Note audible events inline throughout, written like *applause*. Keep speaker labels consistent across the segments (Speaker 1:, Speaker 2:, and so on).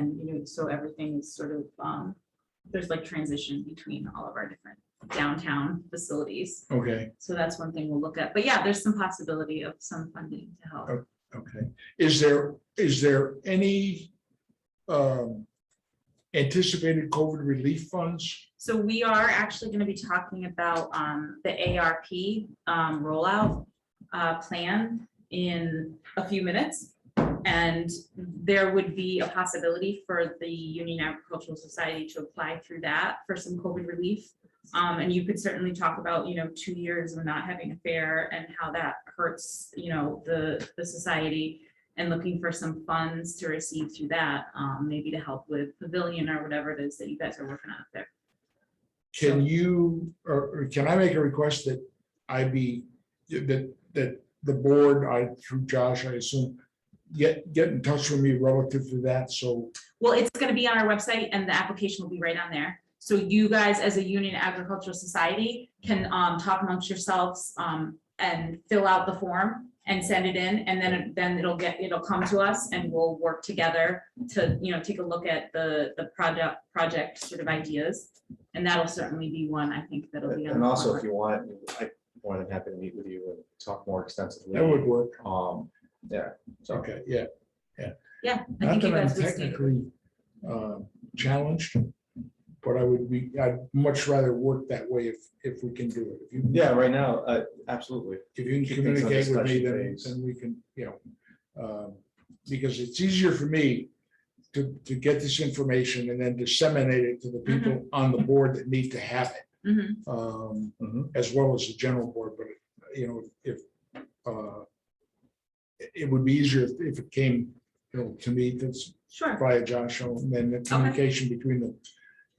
Speaker 1: and so everything's sort of, um, there's like transition between all of our different downtown facilities.
Speaker 2: Okay,
Speaker 1: So that's one thing we'll look at. But yeah, there's some possibility of some funding to help.
Speaker 2: okay. Is there, is there any um anticipated COVID relief funds?
Speaker 1: So we are actually gonna be talking about um the ARP um rollout uh plan in a few minutes. And there would be a possibility for the Union Agricultural Society to apply through that for some COVID relief. Um, and you could certainly talk about, you know, two years of not having a fair and how that hurts, you know, the the society. And looking for some funds to receive through that, um, maybe to help with pavilion or whatever it is that you guys are working on up there.
Speaker 2: Can you, or or can I make a request that I be, that that the board, I through Josh, I assume, get get in touch with me relative to that, so,
Speaker 1: Well, it's gonna be on our website and the application will be right on there. So you guys, as a Union Agricultural Society, can um talk amongst yourselves um and fill out the form and send it in, and then then it'll get, it'll come to us and we'll work together to, you know, take a look at the the project, project sort of ideas. And that'll certainly be one, I think, that'll be. on
Speaker 3: And
Speaker 1: the
Speaker 3: also,
Speaker 1: form.
Speaker 3: if you want, I more than happy to meet with you and talk more extensively.
Speaker 2: that would work.
Speaker 3: Um, yeah, so,
Speaker 2: Okay, yeah.
Speaker 1: Yeah, I
Speaker 2: Not
Speaker 1: think you
Speaker 2: that I'm
Speaker 1: guys would see.
Speaker 2: technically uh, challenged, but I would be, I'd much rather work that way if, if we can do it. If you can-
Speaker 3: yeah, right now, uh, absolutely.
Speaker 2: If you can
Speaker 3: Keep things on
Speaker 2: communicate with me,
Speaker 3: discussion
Speaker 2: then,
Speaker 3: phase.
Speaker 2: then we can, you know, um, because it's easier for me to, to get this information and then disseminate it to the people on the board that need to have it,
Speaker 1: Mhm.
Speaker 2: um,
Speaker 4: Mm-hmm.
Speaker 3: Mhm.
Speaker 2: as well as the general board, but, you know, if, uh, it- it would be easier if- if it came, you know, to me, that's,
Speaker 1: Sure,
Speaker 2: via Josh, and then the communication between the,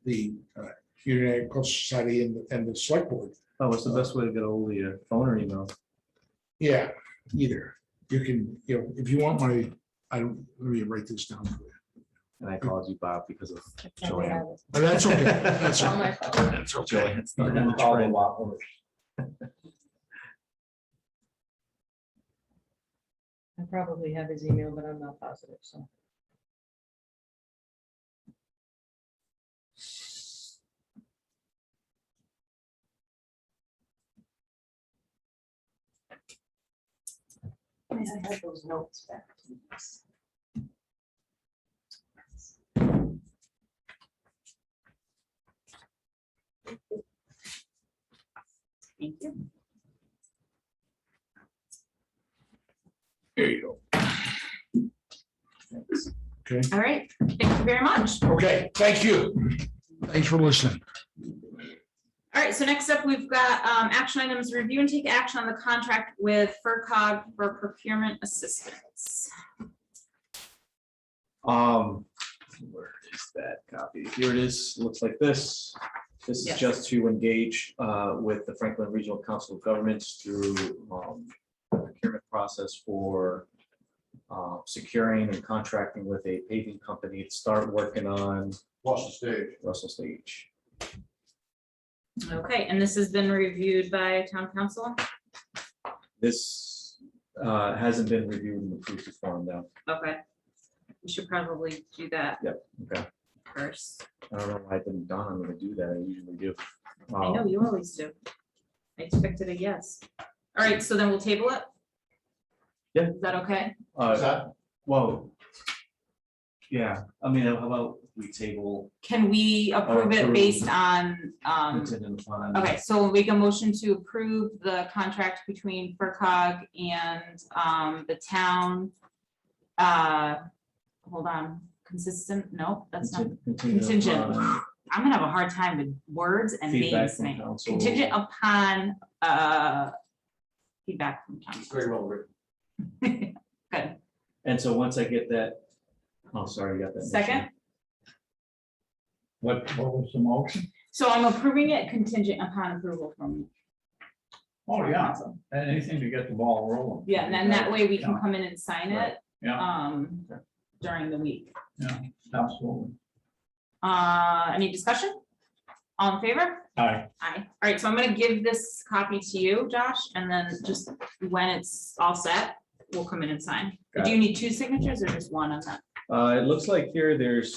Speaker 2: the uh, Union Agricultural Society and, the- and the select board.
Speaker 4: Oh, what's the best way to get hold of you? Phone or email?
Speaker 2: Yeah, either. You can, you know, if you want my, I don't, let me write this down. for you.
Speaker 4: And I called you Bob because of Joanne.
Speaker 2: But that's okay. That's
Speaker 1: on
Speaker 2: okay.
Speaker 1: my phone.
Speaker 4: That's okay. It's
Speaker 3: You
Speaker 4: not *laughs* in
Speaker 3: can
Speaker 4: the
Speaker 3: call the
Speaker 4: trend.
Speaker 3: lot owner.
Speaker 5: I probably have his email, but I'm not positive, so. I have those notes back.
Speaker 1: Thank you.
Speaker 2: There you go. Okay,
Speaker 1: All right, thank you very much.
Speaker 2: okay, thank you. Thanks for listening.
Speaker 1: All right, so next up, we've got um, action items, review and take action on the contract with FERCog for procurement assistance.
Speaker 3: Um, where is that copy? Here it is, looks like this. This is
Speaker 1: Yes.
Speaker 3: just to engage uh, with the Franklin Regional Council of Governments through um, the procurement process for uh, securing and contracting with a paving company to start working on
Speaker 2: Lost stage.
Speaker 3: Russell Stage.
Speaker 1: Okay, and this has been reviewed by town council?
Speaker 3: This uh, hasn't been reviewed and approved to form though.
Speaker 1: Okay. We should probably do that
Speaker 3: Okay,
Speaker 1: first.
Speaker 3: I don't know why I didn't, Don, I'm gonna do that, I usually do.
Speaker 1: I know
Speaker 3: Um,
Speaker 1: you always do. I expected a yes. All right, so then we'll table it?
Speaker 3: Yeah.
Speaker 1: Is that okay?
Speaker 3: uh, Whoa. Yeah, I mean, how about we table
Speaker 1: Can we approve it
Speaker 3: Approve.
Speaker 1: based on, um,
Speaker 3: contingent upon?
Speaker 1: Okay, so we'll make a motion to approve the contract between FERCog and um, the town. Uh, Hold on, consistent, no, that's not,
Speaker 3: contin- contingent
Speaker 1: Contingent.
Speaker 3: upon
Speaker 1: I'm gonna have a hard time with words and
Speaker 3: Feedback
Speaker 1: names.
Speaker 3: from
Speaker 1: man.
Speaker 3: council.
Speaker 1: Contingent upon uh, feedback from council. *laughs*
Speaker 3: Very well written.
Speaker 1: Good,
Speaker 3: And so once I get that, oh, sorry, I got that. motion.
Speaker 1: second,
Speaker 2: What, what was the motion?
Speaker 1: so I'm approving it contingent upon approval from.
Speaker 6: Oh, yeah,
Speaker 1: council.
Speaker 6: and anything to get the ball rolling.
Speaker 1: Yeah, and then that way we can come in and sign
Speaker 6: Right,
Speaker 1: it.
Speaker 6: yeah.
Speaker 1: um, During the week.
Speaker 6: Absolutely.
Speaker 1: Uh, any discussion? All in favor?
Speaker 6: Aye.
Speaker 1: Aye. All right, so I'm gonna give this copy to you, Josh, and then just when it's all set, we'll come in and sign.
Speaker 3: Got
Speaker 1: Do you need two signatures or just one on that?
Speaker 3: Uh, it looks like here there's